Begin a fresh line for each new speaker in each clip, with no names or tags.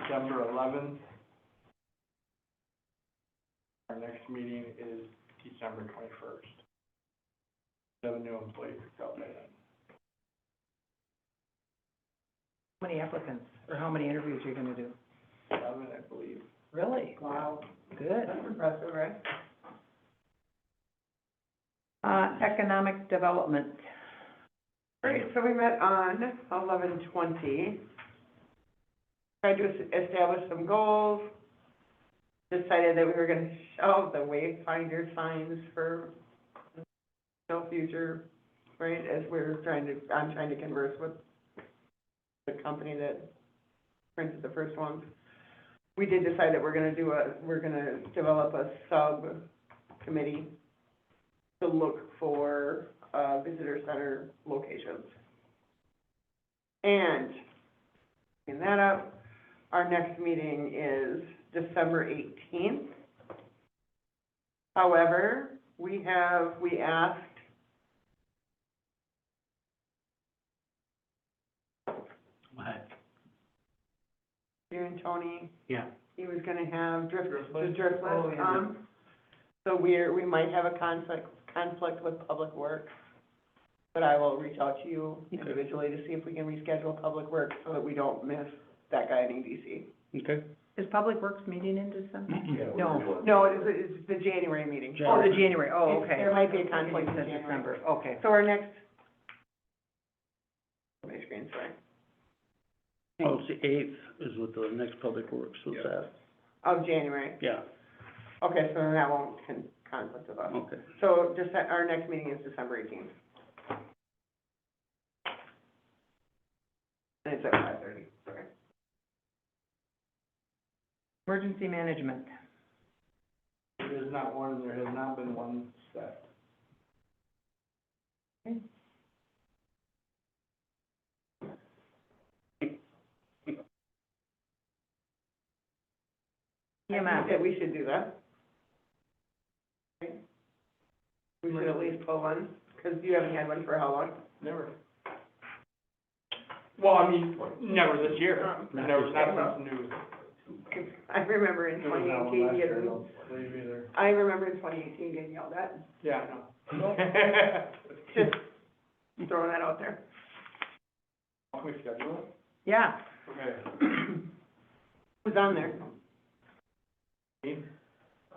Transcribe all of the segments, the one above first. November eleventh. Our next meeting is December twenty-first. Seven new employees out by then.
How many applicants, or how many interviews you're gonna do?
Eleven, I believe.
Really?
Wow.
Good.
impressive, right?
Uh, economic development.
Great, so we met on eleven twenty. Tried to es- establish some goals, decided that we were gonna shelve the wayfinder signs for no future, right, as we're trying to, I'm trying to converse with the company that printed the first one. We did decide that we're gonna do a, we're gonna develop a sub-committee to look for, uh, visitor center locations. And, clean that up, our next meeting is December eighteenth. However, we have, we asked
What?
you and Tony,
Yeah.
he was gonna have drift, the
Driftwood? Oh,
driftwood,
yeah.
um, so we're, we might have a conflict, conflict with Public Works, but I will reach out to you
Okay.
individually to see if we can reschedule Public Works so that we don't miss that guy in E EDC.
Okay.
Is Public Works meeting in December? No.
No, it's, it's the January meeting.
Jan-
Oh, the January, oh,
It's-
okay.
There might be a conflict
You
in
said
January.
December, okay.
So our next, my screen, sorry.
Oh, it's the eighth is what the next public works was at.
Of Oh, January.
Yeah,
Okay, so then that won't con- conflict with
Oh.
us.
okay.
So just, our next meeting is December eighteenth. And it's at five thirty, sorry.
Emergency management.
There's not one, and there has not been one set.
I
EMS.
think That we should do that. Right? We should at least pull one, because you haven't had one for how long?
Never. Well, I mean, never this year.
Um,
Not
Never,
this
not
year.
something new.
I remember in
There was
twenty
not one last
eighteen,
year, I
getting,
don't believe either.
I remember in twenty eighteen getting yelled at,
Yeah, I know.
just throwing that out there.
Can we schedule it?
Yeah,
Okay.
Who's on there?
Dean?
uh,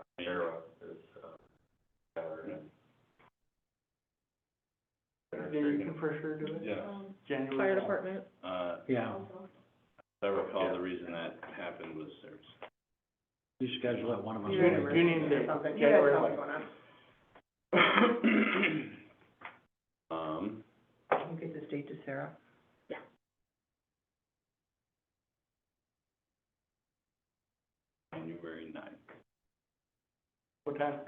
Yeah, you can for sure do it.
Yes,
January.
Fire department,
uh,
Yeah,
I recall the reason that happened was there's,
you schedule that one of them.
You're in
June- June and May,
Something, you guys
January
know what's
eleventh.
going on.
um,
we'll get this date to Sarah.
January ninth.
What time?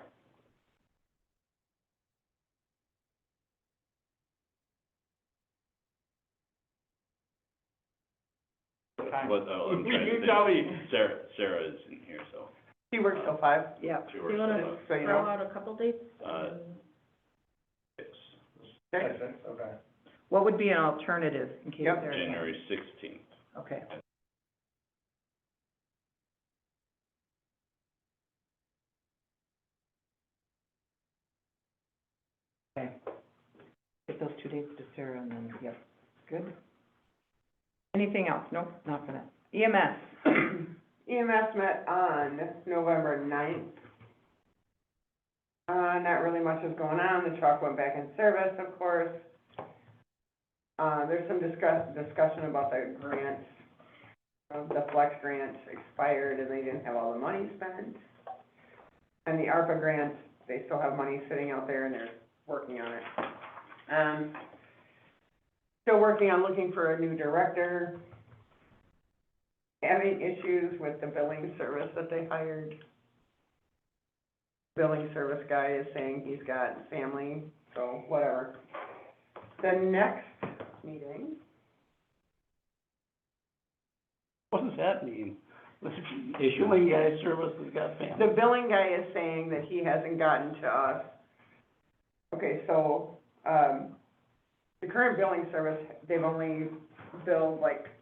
What time?
But, oh, I'm trying to
You
think.
tell me.
Sarah, Sarah is in here, so
She works till five,
Yeah.
she
You
works
wanna-
on
so you
throw
know,
out a couple dates.
the, uh, six,
Uh-huh.
six,
Okay.
What would be an alternative in case
Yep.
there is?
January sixteenth.
Okay. Okay. Get those two dates to Sarah and then, yep, good. Anything else? Nope, not for that. E EMS.
EMS E met on November ninth. Uh, not really much is going on, the truck went back in service, of course. Uh, there's some discuss, discussion about the grant, um, the flex grant expired and they didn't have all the money spent. And the ARPA grant, they still have money sitting out there and they're working on it. Um, still working on looking for a new director having issues with the billing service that they hired. Billing service guy is saying he's got family, so whatever. The next meeting,
What does that mean? Issuing guy services got
the
family.
billing guy is saying that he hasn't gotten to us. Okay, so, um, the current billing service, they've only billed like